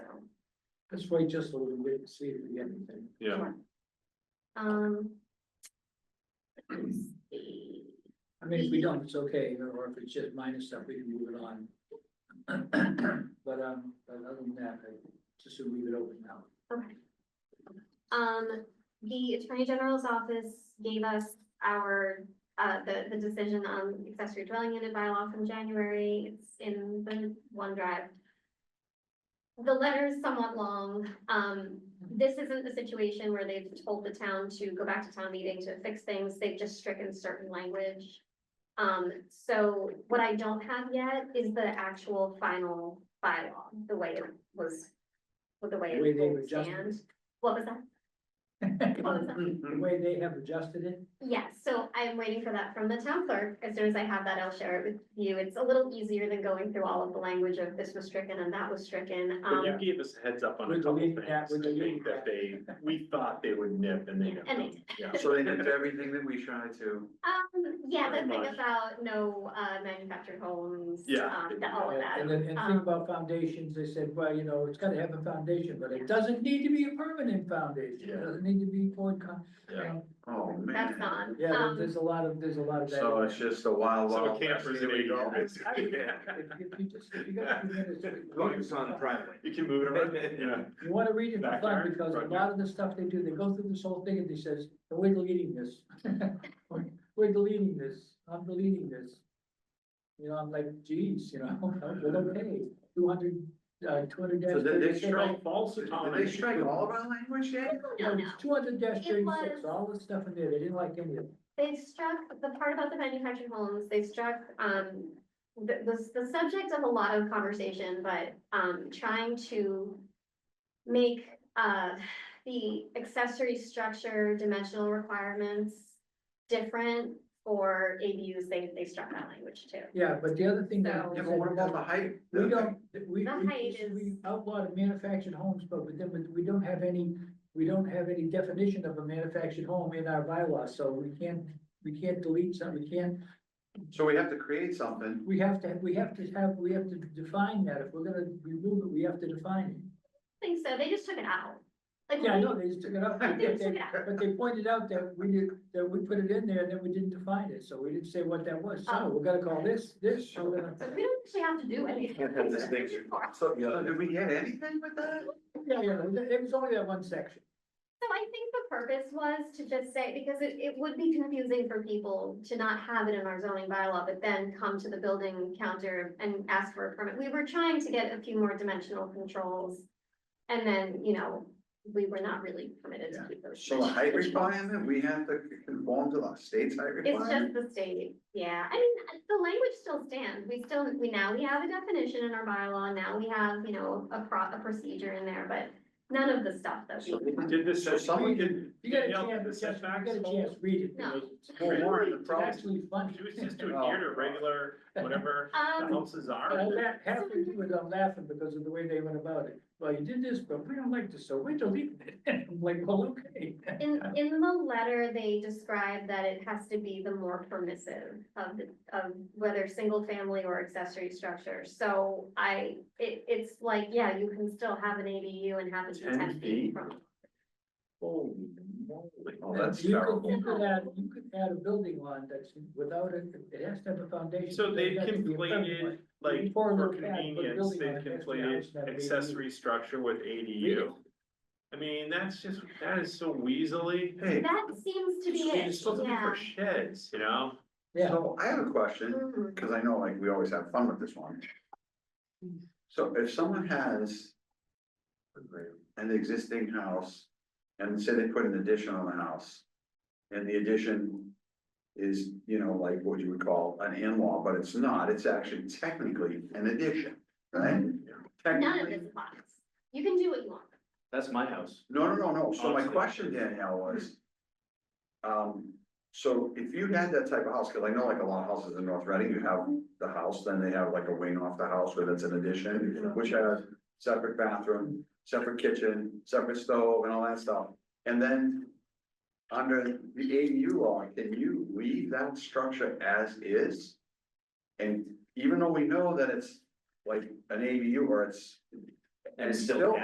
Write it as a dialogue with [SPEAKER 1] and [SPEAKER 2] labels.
[SPEAKER 1] Let's wait just a little bit and see if we get anything.
[SPEAKER 2] Yeah,
[SPEAKER 3] Sure. Um. let's see.
[SPEAKER 1] I mean, if we don't, it's okay, or- or if it's just minor stuff, we can move it on. But, um, but other than that, I just assume leave it open now.
[SPEAKER 3] Okay. Um, the Attorney General's office gave us our, uh, the, the decision on accessory dwelling unit bylaw from January. It's in the OneDrive. The letter is somewhat long. Um, this isn't a situation where they've told the town to go back to town meeting to fix things. They've just stricken certain language. Um, so what I don't have yet is the actual final bylaw, the way it was, with the way
[SPEAKER 1] The way
[SPEAKER 3] it
[SPEAKER 1] they've
[SPEAKER 3] will
[SPEAKER 1] adjusted it.
[SPEAKER 3] stand. What was that?
[SPEAKER 1] The way they have adjusted it,
[SPEAKER 3] Yes, so I am waiting for that from the town clerk. As soon as I have that, I'll share it with you. It's a little easier than going through all of the language of this was stricken and that was stricken.
[SPEAKER 2] but you
[SPEAKER 3] Um,
[SPEAKER 2] gave us a heads up on a
[SPEAKER 1] We're
[SPEAKER 2] couple
[SPEAKER 1] deleting
[SPEAKER 2] things, I
[SPEAKER 1] that, we're deleting
[SPEAKER 2] think that they, we thought they would nip and they. nipped
[SPEAKER 3] And they
[SPEAKER 2] them. Yeah,
[SPEAKER 4] So they did everything that we tried to.
[SPEAKER 3] um, yeah, the
[SPEAKER 2] Pretty
[SPEAKER 3] thing
[SPEAKER 2] much.
[SPEAKER 3] about no uh manufactured homes,
[SPEAKER 2] Yeah.
[SPEAKER 3] um, the- all of
[SPEAKER 1] and
[SPEAKER 3] that.
[SPEAKER 1] then, and
[SPEAKER 3] Um,
[SPEAKER 1] think about foundations, they said, well, you know, it's gotta have a foundation, but it doesn't need to be a permanent foundation. It
[SPEAKER 2] Yeah.
[SPEAKER 1] doesn't need to be poured con,
[SPEAKER 2] yeah.
[SPEAKER 4] Oh, man.
[SPEAKER 3] That's gone.
[SPEAKER 1] yeah, there-
[SPEAKER 3] Um,
[SPEAKER 1] there's a lot of, there's a lot of that.
[SPEAKER 4] So it's just a wild,
[SPEAKER 2] So a
[SPEAKER 4] wild. west.
[SPEAKER 2] camper's
[SPEAKER 4] Here
[SPEAKER 2] an
[SPEAKER 4] we go.
[SPEAKER 2] eighty.
[SPEAKER 1] If if you just, if you got a few minutes.
[SPEAKER 4] Focus on the primary.
[SPEAKER 2] You can move it around, yeah.
[SPEAKER 1] You wanna read it for fun,
[SPEAKER 2] Backyard,
[SPEAKER 1] because a
[SPEAKER 2] front
[SPEAKER 1] lot of the stuff they do, they go through this whole thing and they says, "And we're deleting this. We're deleting this, I'm deleting this. You know, I'm like, geez, you know, but okay, two hundred, uh, two hundred dash
[SPEAKER 4] So did they
[SPEAKER 1] thirty-six.
[SPEAKER 4] strike,
[SPEAKER 2] False
[SPEAKER 4] did
[SPEAKER 2] autonomy.
[SPEAKER 4] they strike all of our language yet?
[SPEAKER 3] No, no.
[SPEAKER 1] Two hundred dash
[SPEAKER 3] It
[SPEAKER 1] thirty-six,
[SPEAKER 3] was-
[SPEAKER 1] all the stuff in there, they didn't like any of it.
[SPEAKER 3] They struck the part about the manufactured homes, they struck um the the the subject of a lot of conversation, but um trying to make uh the accessory structure dimensional requirements different for ABUs, they they struck that language too.
[SPEAKER 1] Yeah, but the other thing that.
[SPEAKER 3] So-
[SPEAKER 1] they
[SPEAKER 4] Yeah, but what
[SPEAKER 1] said-
[SPEAKER 4] about the height?
[SPEAKER 1] We don't, we,
[SPEAKER 3] The height
[SPEAKER 1] we,
[SPEAKER 3] is-
[SPEAKER 1] we outlawed manufactured homes, but we then, we don't have any, we don't have any definition of a manufactured home in our bylaw, so we can't, we can't delete some, we can't,
[SPEAKER 4] So we have to create something.
[SPEAKER 1] we have to, we have to have, we have to define that, if we're gonna remove it, we have to define
[SPEAKER 3] I think so, they just took it out.
[SPEAKER 1] it.
[SPEAKER 3] Like,
[SPEAKER 1] Yeah, I know, they just took it up,
[SPEAKER 3] they
[SPEAKER 1] but
[SPEAKER 3] just took
[SPEAKER 1] they,
[SPEAKER 3] it out.
[SPEAKER 1] but they pointed out that we did, that we put it in there, and then we didn't define it, so we didn't say what that was, so
[SPEAKER 3] Oh.
[SPEAKER 1] we're gonna call this, this, so we're gonna.
[SPEAKER 3] So we don't actually have to do anything.
[SPEAKER 4] This thing's- So, so did we get anything with that?
[SPEAKER 1] Yeah, yeah, it was only that one section.
[SPEAKER 3] So I think the purpose was to just say, because it, it would be confusing for people to not have it in our zoning bylaw, but then come to the building counter and ask for a permit. We were trying to get a few more dimensional controls. And then, you know, we were not really permitted to keep those.
[SPEAKER 4] So the height
[SPEAKER 3] dimensional controls.
[SPEAKER 4] requirement, we have to conform to the state's height
[SPEAKER 3] It's just
[SPEAKER 4] requirement?
[SPEAKER 3] the state, yeah, I mean, the language still stands, we still, we now, we have a definition in our bylaw, now we have, you know, a pro, a procedure in there, but none of the stuff that we.
[SPEAKER 4] So we can
[SPEAKER 2] Did this,
[SPEAKER 4] So someone
[SPEAKER 2] did.
[SPEAKER 1] You got a
[SPEAKER 2] Danielle, did
[SPEAKER 1] chance,
[SPEAKER 2] the
[SPEAKER 1] Jeff, you
[SPEAKER 2] setbacks
[SPEAKER 1] got a
[SPEAKER 2] hold?
[SPEAKER 1] chance, read it.
[SPEAKER 3] No.
[SPEAKER 1] It's
[SPEAKER 2] Well, Warren, the
[SPEAKER 1] it's
[SPEAKER 2] problem-
[SPEAKER 1] Actually funny.
[SPEAKER 2] She was just to adhere
[SPEAKER 1] Oh.
[SPEAKER 2] to regular, whatever the
[SPEAKER 3] Um,
[SPEAKER 2] houses are.
[SPEAKER 1] I laugh- Halfway through it, I'm laughing because of the way they went about it. Well, you did this, but we don't like this, so we're deleting it. I'm like, well, okay.
[SPEAKER 3] In, in the letter, they describe that it has to be the more permissive of the, of whether single family or accessory structure. So I, it, it's like, yeah, you can still have an ADU and have it be
[SPEAKER 2] 10
[SPEAKER 3] ten feet
[SPEAKER 2] feet?
[SPEAKER 3] from.
[SPEAKER 2] Holy moly.
[SPEAKER 4] Oh, that's
[SPEAKER 1] You could-
[SPEAKER 4] terrible.
[SPEAKER 1] You could add, you could add a building on that's without it, it has to have a foundation.
[SPEAKER 2] So they
[SPEAKER 1] It doesn't have to be a permanent
[SPEAKER 2] conflated,
[SPEAKER 1] one.
[SPEAKER 2] like,
[SPEAKER 1] Before
[SPEAKER 2] for
[SPEAKER 1] the fact, we're
[SPEAKER 2] convenience,
[SPEAKER 1] building
[SPEAKER 2] they
[SPEAKER 1] on it, that's the house that
[SPEAKER 2] conflated
[SPEAKER 1] we-
[SPEAKER 2] accessory structure with ADU. I mean, that's just, that is so weaselly.
[SPEAKER 4] Hey,
[SPEAKER 3] That seems to be
[SPEAKER 2] It's
[SPEAKER 3] it,
[SPEAKER 2] supposed to be
[SPEAKER 3] yeah.
[SPEAKER 2] for sheds, you know?
[SPEAKER 1] Yeah,
[SPEAKER 4] so I have a question.
[SPEAKER 3] Mhm.
[SPEAKER 4] because I know like we always have fun with this one. So if someone has an existing house and say they put an addition on the house. And the addition is, you know, like what you would call an in-law, but it's not, it's actually technically an addition, right?
[SPEAKER 3] None of
[SPEAKER 4] Technically,
[SPEAKER 3] this applies. You can do what you want.
[SPEAKER 2] That's my house.
[SPEAKER 4] no, no, no, no, so my
[SPEAKER 2] Honestly.
[SPEAKER 4] question Danielle was. Um, so if you had that type of house, cause I know like a lot of houses in North Reading, you have the house, then they have like a wing off the house where that's an addition, which has. Separate bathroom, separate kitchen, separate stove and all that stuff, and then. Under the ADU law, can you leave that structure as is? And even though we know that it's like an ADU or it's.
[SPEAKER 2] And it's still